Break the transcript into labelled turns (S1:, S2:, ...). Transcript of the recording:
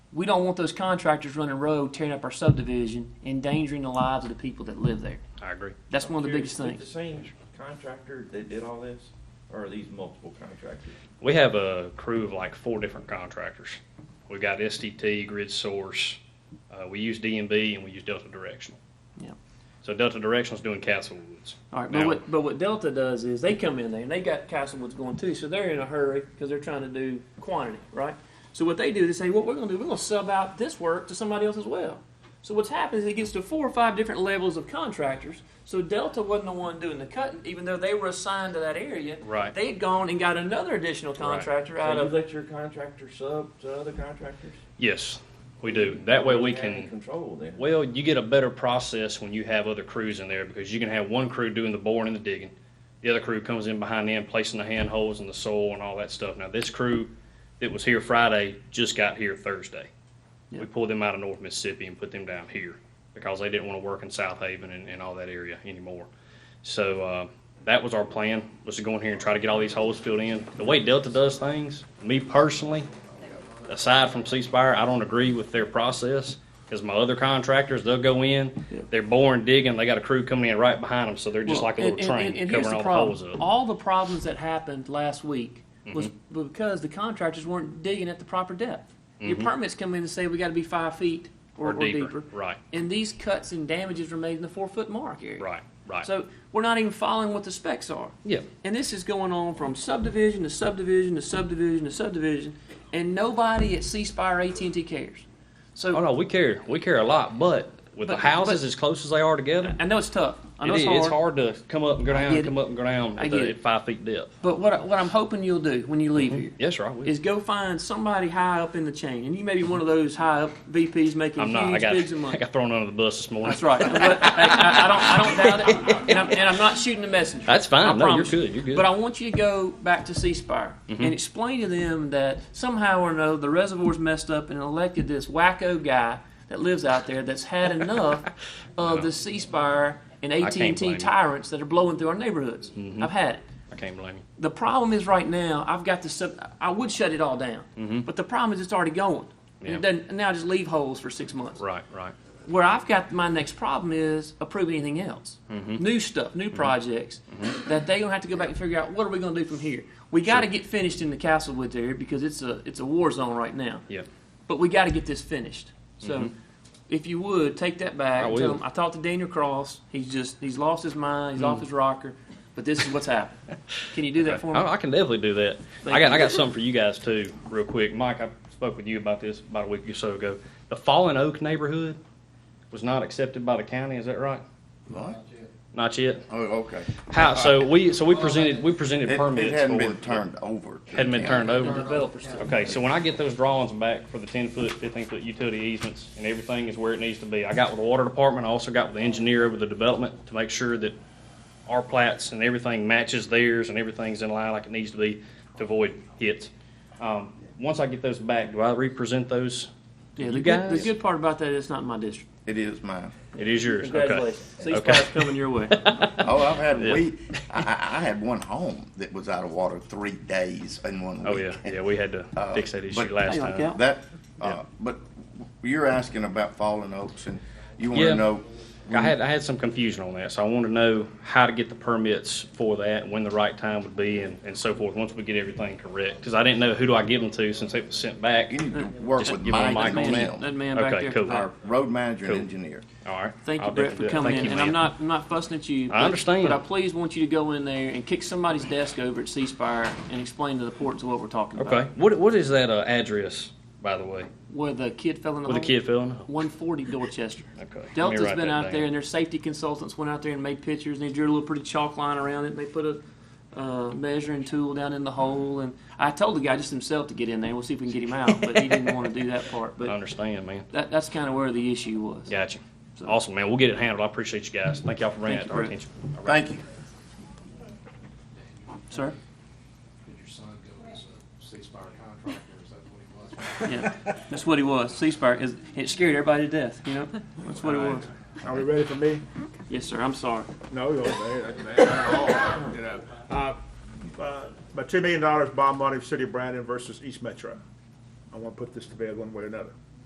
S1: we don't want those contractors running road, tearing up our subdivision, endangering the lives of the people that live there.
S2: I agree.
S1: That's one of the
S3: Jerry,
S1: biggest
S3: is it
S1: things.
S3: The same contractor that did all this, or are these multiple contractors?
S2: We have a crew of like four different contractors. We've got STT, Grid Source, uh, we use DMB, and we use Delta Directional.
S1: Yeah.
S2: So Delta Directional's doing Castle Woods.
S1: All right, but
S2: Now-
S1: what, but what Delta does is they come in there and they got Castlewood's going too, so they're in a hurry because they're trying to do quantity, right? So what they do is they say, what we're going to do, we're going to sub out this work to somebody else as well. So what's happened is it gets to four or five different levels of contractors. So Delta wasn't the one doing the cutting, even though they were assigned to that area.
S2: Right.
S1: They had gone and got another additional contractor out
S3: So you
S1: of.
S3: let your contractor sub to other contractors?
S2: Yes, we do. That way we
S3: You have any
S2: can,
S3: Control then.
S2: well, you get a better process when you have other crews in there because you can have one crew doing the boring and the digging. The other crew comes in behind them, placing the hand holes in the soil and all that stuff. Now, this crew that was here Friday just got here Thursday.
S1: Yeah.
S2: We pulled them out of North Mississippi and put them down here because they didn't want to work in South Haven and, and all that area anymore. So uh, that was our plan was to go in here and try to get all these holes filled in. The way Delta does things, me personally, aside from ceasefire, I don't agree with their process because my other contractors they'll go in,
S1: Yeah.
S2: they're boring digging, they got a crew coming in right behind them, so they're just
S1: Well,
S2: like a little
S1: and- and-
S2: train
S1: and- and here's
S2: covering all the
S1: problem.
S2: holes up. Mm-hmm.
S1: All the problems that happened last week was because the contractors weren't digging at the proper depth. Your permits come in and say we got to be five feet or,
S2: Mm-hmm. Or deeper, right.
S1: And these cuts and damages were made in the four foot mark area.
S2: Right, right.
S1: So we're not even following what the specs are.
S2: yeah,
S1: And this is going on from subdivision to subdivision to subdivision to subdivision, and nobody at Ceasefire AT and T cares. So
S2: oh no, we care, we care a lot, but with
S1: But-
S2: the houses
S1: but-
S2: as close as they are together,
S1: I know it's tough. I know it's
S2: it is.
S1: hard.
S2: It's hard to come up and go
S1: get
S2: down,
S1: it.
S2: come up and go down
S1: I get
S2: at, the,
S1: it.
S2: at five feet depth.
S1: But what, I- what I'm hoping you'll do when you leave here
S2: Yes, sir. I will.
S1: is go find somebody high up in the chain, and you may be one of those high up VPs making
S2: I'm
S1: huge
S2: not. I got,
S1: bigs of money.
S2: I got thrown under the bus this morning.
S1: That's right. But, hey, I, I don't. I don't doubt it. And I'm, and I'm not shooting the messenger.
S2: That's fine.
S1: I
S2: No, you're
S1: promise you.
S2: good. You're good. Mm-hmm.
S1: But I want you to go back to Ceasefire and explain to them that somehow or another the reservoir's messed up and elected this wacko guy that lives out there that's had enough of the Ceasefire and AT
S2: can't
S1: and
S2: blame Mm-hmm.
S1: T
S2: you.
S1: tyrants that are blowing through our neighborhoods. I've had it.
S2: I can't blame you.
S1: The problem is right now, I've got to, sub- I would shut it all down. But the problem is it's already going. And
S2: Mm-hmm. Yeah.
S1: it doesn't, now I just leave holes for six months.
S2: Right, right.
S1: Where I've got my next problem is approving anything else.
S2: Mm-hmm.
S1: New stuff, new projects that they're going to have to go back and figure out what are we going to do from here. We got to get finished in the Castlewoods area because it's a, it's a war zone right now.
S2: Yeah. Mm-hmm.
S1: But we got to get this finished. So if you would, take that back.
S2: I
S1: and tell
S2: will.
S1: them, I talked to Daniel Cross. He's just, he's lost his mind.
S2: Mm.
S1: He's off his rocker. But this is what's happened. Can you do that for me?
S2: I, I can definitely do that.
S1: Thank
S2: I got
S1: you.
S2: I got something for you guys too, real quick. Mike, I spoke with you about this about a week or so ago. The Fallen Oak neighborhood was not accepted by the county. Is that right?
S4: What?
S2: Not yet.
S4: Oh, okay.
S2: How? So we so we presented we presented
S4: It,
S2: permits.
S4: it hadn't
S2: for-
S4: been turned over. to
S2: Hadn't been
S4: the
S2: turned
S4: county.
S1: The
S2: over.
S1: developers too.
S2: Okay, so when I get those drawings back for the ten foot, fifteen foot utility easements and everything is where it needs to be. I got with the water department, I also got with the engineer over the development to make sure that our plats and everything matches theirs and everything's in line like it needs to be to avoid hits. Um, once I get those back, do I represent those? to
S1: Yeah,
S2: you
S1: the good, the
S2: guys?
S1: good part about that is it's not in my district.
S4: It is mine.
S2: It is yours, okay.
S1: Congratulations.
S2: Okay.
S1: Ceasefire's coming your way.
S4: Oh, I've had
S2: Yeah.
S4: we. I, I I had one home that was out of water three days in one week.
S2: Oh, yeah, yeah, we had to fix that issue
S4: but-
S2: last
S1: Hey, like
S2: time.
S4: That. Uh,
S2: Yeah.
S4: But you're asking about fallen oaks, and you want
S2: Yeah.
S4: to know.
S2: I had, I had some confusion on that, so I want to know how to get the permits for that, when the right time would be, and, and so forth, once we get everything correct, because I didn't know who do I give them to since it was sent back.
S4: You need to work
S2: Just
S4: with
S2: give them
S4: Mike
S2: a mic
S4: and
S2: on
S1: Man,
S4: Tim,
S1: that man back
S2: Okay,
S1: there.
S2: cool.
S1: All right.
S4: our road manager
S2: Cool.
S4: and engineer.
S2: All right.
S1: Thank you,
S2: I'll
S1: Brett,
S2: definitely
S1: for
S2: do that.
S1: coming
S2: Thank
S1: in.
S2: you,
S1: And I'm
S2: ma'am.
S1: not, I'm not fussing at you. but-
S2: understand.
S1: But I please want you to go in there and kick somebody's desk over at Ceasefire and explain the importance of what we're talking about.
S2: Okay, what, what is that, uh, address, by the way,
S1: Where the kid fell in the
S2: with the
S1: hole?
S2: kid filling? Okay.
S1: One forty Dorchester.
S2: let me
S1: Delta's
S2: write
S1: been
S2: that
S1: out there
S2: down.
S1: and their safety consultants went out there and made pictures and they drew a little pretty chalk line around it. They put a, uh, measuring tool down in the hole and I told the guy just himself to get in there. We'll see if we can get him out, but he didn't want to do that part.
S2: I
S1: But
S2: understand, man.
S1: that, that's kind of where the issue was.
S2: Gotcha.
S1: So-
S2: Awesome, man. We'll get it handled. I appreciate you guys. Thank y'all for bringing
S1: Thank
S2: that to
S1: you,
S2: our
S1: Brett.
S2: attention. All right.
S4: Thank you.
S1: Sir?
S5: Did your son go as a ceasefire contractor? Is that what he was?
S1: Yeah, that's what he was. Ceasefire. Cause it scared everybody to death. You know, that's what it was.
S6: Are we ready for me?
S1: Yes, sir. I'm sorry.
S6: No, you're okay. That's bad. Not at all, you know. Uh, uh, About two million dollars bond money for City of Brandon versus East Metro. I want to put this to bed one way or another.